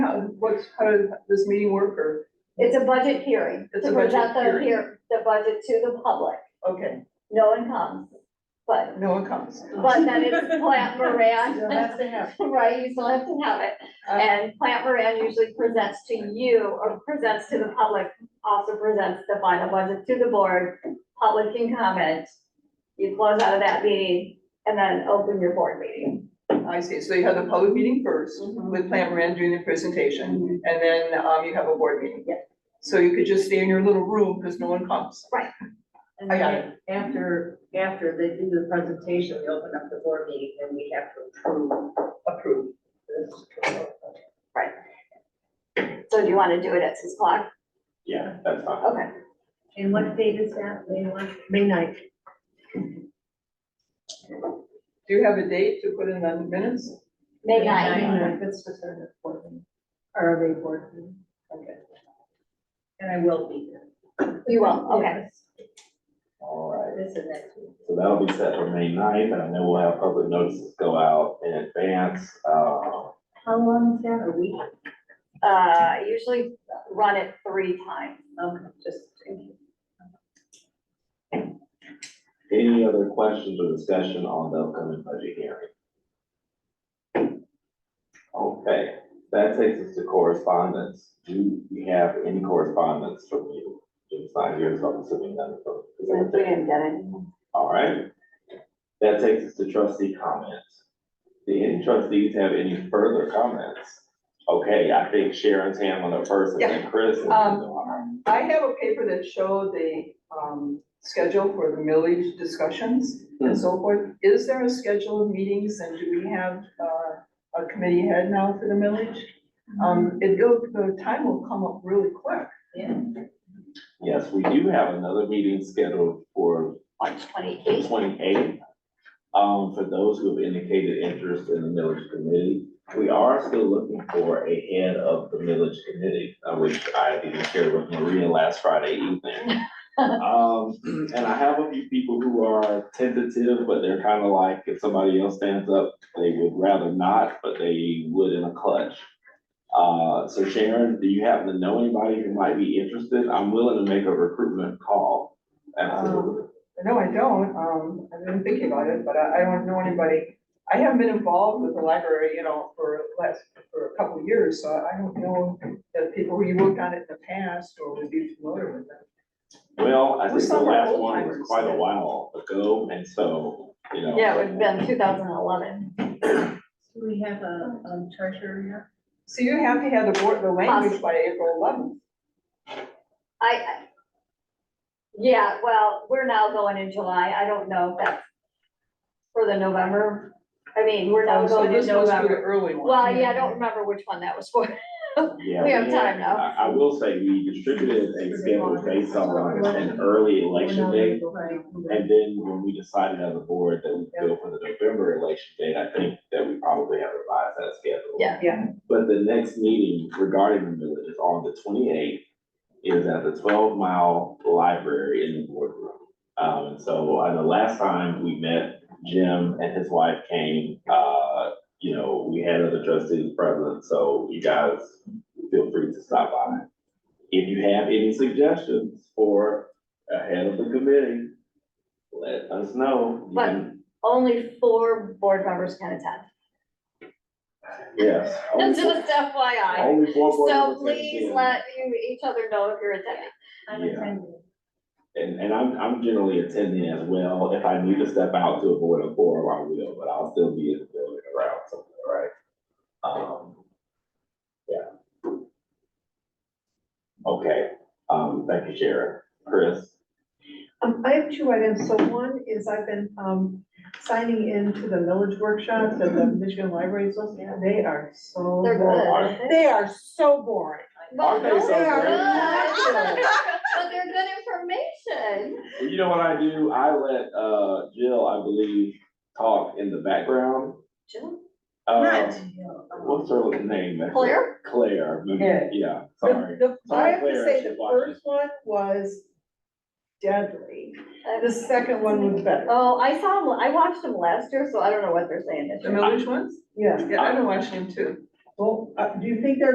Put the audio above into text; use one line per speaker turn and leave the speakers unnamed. what's, how does this meeting work, or,
It's a budget hearing,
It's
to
a budget
present the,
hearing.
hear- the budget to the public,
okay,
no one comes, but,
no one comes.
but then it's Plant
Still
Moran,
has to happen.
right, you still have to have it.
Uh,
And Plant Moran usually presents to you, or presents to the public, also presents the final budget to the board, public can comment. You close out of that meeting and then open your board meeting.
I see, so you have the public meeting first,
Mm-hmm.
with Plant Moran doing the presentation, and then, um, you have a board meeting.
Yeah.
So you could just stay in your little room, because no one comes.
And
I got
then after, after they do the presentation, we open up the board meeting, and we have to approve
Approved.
this.
So do you want to do it at six o'clock?
Yeah, that's fine.
Okay.
And what date is that, May one? May ninth.
Do you have a date to put in the minutes?
May
May
ninth.
ninth.
That's just a board meeting.
Or are they board meeting? Okay. And I will be there.
You will, okay.
All right,
This is next week.
so that'll be set for May 9th, and then we'll have public notices go out in advance. Uh,
How long is that, a week?
Uh, I usually run it three times.
Okay, just.
Any other questions or discussion on the upcoming budget hearing? Okay, that takes us to correspondence. Do we have any correspondence from you? Jim's not here, so I'm assuming none from.
We
is there anything?
didn't get it.
All right. That takes us to trustee comments. Do any trustees have any further comments? Okay, I think Sharon's hand went up first and then Chris. and then-
I have a paper that showed the, um, schedule for the millage discussions and so forth. Is there a schedule of meetings and do we have, uh, a committee head now for the millage? Um, it, will- the time will come up really quick.
Yes, we do have another meeting scheduled for
On twenty-eighth.
twenty-eighth. Um, for those who have indicated interest in the millage committee, we are still looking for a head of the village committee, uh, which I even shared with Maria last Friday evening. Um, and I have a few people who are tentative, but they're kind of like, if somebody else stands up, they would rather not, but they would in a clutch. Uh, so Sharon, do you happen to know anybody who might be interested? I'm willing to make a recruitment call. Absolutely.
No, I don't, um, I've been thinking about it, but I, I don't know anybody. I haven't been involved with the library, you know, for last, for a couple of years, so I don't know the people who you worked on it in the past or would be familiar with them.
Well, I
We
think the
saw where
last
old
one was
timers
quite a
did.
while ago, and so, you know.
Yeah, it would have been two thousand and eleven.
Do we have a, a treasurer yet?
So you have to have the board, the language by April eleventh.
I, I- yeah, well, we're now going in July. I don't know if that's for the November. I mean, we're
Oh,
now
Oh, So
going in
this was for the
November.
early one.
Well, yeah, I don't remember which one that was for.
Yeah,
We have
had-
time now.
I, I will say, we distributed a schedule based on an early election day, and then when we decided as a board that we go for the November election date, I think that we probably have revised that schedule.
Yeah.
Yeah.
But the next meeting regarding the village is on the twenty-eighth, is at the twelve mile library in the boardroom. Um, and so, I know last time we met, Jim and his wife came, uh, you know, we had other trustees present, so you guys feel free to stop by. If you have any suggestions for a head of the committee, let us know. You can-
Only four board members can attend.
Yes. only four-
Just FYI.
Only Oh, four board
So
members can
please
attend.
let you, each other know if you're attending.
I'm
Yeah.
attending.
And, and I'm, I'm generally attending as well. If I need to step out to avoid a forum, I will, but I'll still be in the building around something, right? Um, yeah. Okay, um, thank you, Sharon. Chris?
Um, I have two items, so one is I've been, um, signing in to the millage workshops at the Michigan Library Association, they are so
They're
boring.
good.
They are so boring.
But
Oh, Aren't they
those
so
are
great?
good. But they're good information.
Well, You know what I do? I let, uh, Jill, I believe, talk in the background.
Jill?
Uh,
Well,
What's her name? back there?
Claire?
Claire,
Yeah.
yeah, sorry.
The, the, I have to
Sorry,
say,
Claire,
the
she watched
first one was deadly,
Uh,
the second one was better,
Oh, I saw them, I watched them last year, so I don't know what they're saying this
The
year.
millage ones?
yeah.
Yeah, I've been watching them too.
Well, uh, do you think they're